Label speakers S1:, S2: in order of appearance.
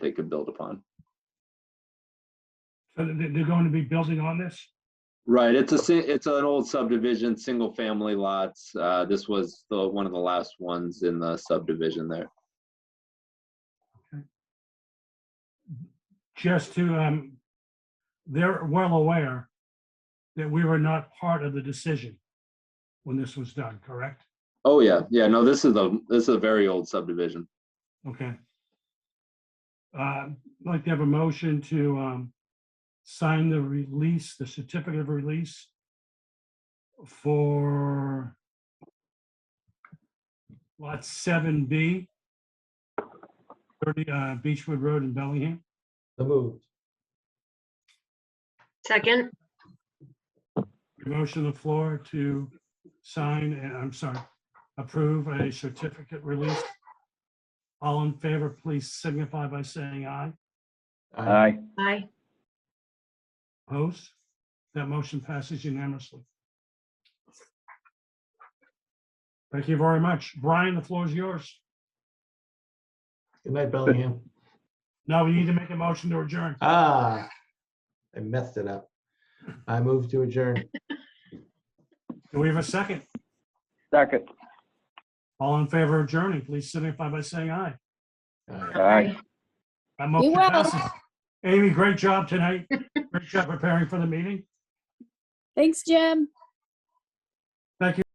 S1: they could build upon.
S2: So they- they're going to be building on this?
S1: Right, it's a, si- it's an old subdivision, single family lots. Uh, this was the, one of the last ones in the subdivision there.
S2: just to, um, they're well aware that we were not part of the decision when this was done, correct?
S1: Oh, yeah, yeah, no, this is a, this is a very old subdivision.
S2: Okay. Uh, I'd like to have a motion to, um, sign the release, the certificate of release for lot seven B, thirty, uh, Beechwood Road in Bellingham.
S3: So moved.
S4: Second,
S2: Motion on the floor to sign, and I'm sorry, approve a certificate release. All in favor, please signify by saying aye.
S5: Aye.
S4: aye.
S2: Opposed? That motion passes unanimously. Thank you very much. Brian, the floor is yours.
S3: Good night, Bellingham.
S2: Now we need to make a motion to adjourn.
S3: Ah, I messed it up. I move to adjourn.
S2: Do we have a second?
S5: Second.
S2: All in favor of adjourning, please signify by saying aye.
S3: Aye.
S5: Aye.
S2: That motion
S6: will.
S2: passes. Amy, great job tonight. Great job preparing for the meeting.
S6: Thanks, Jim.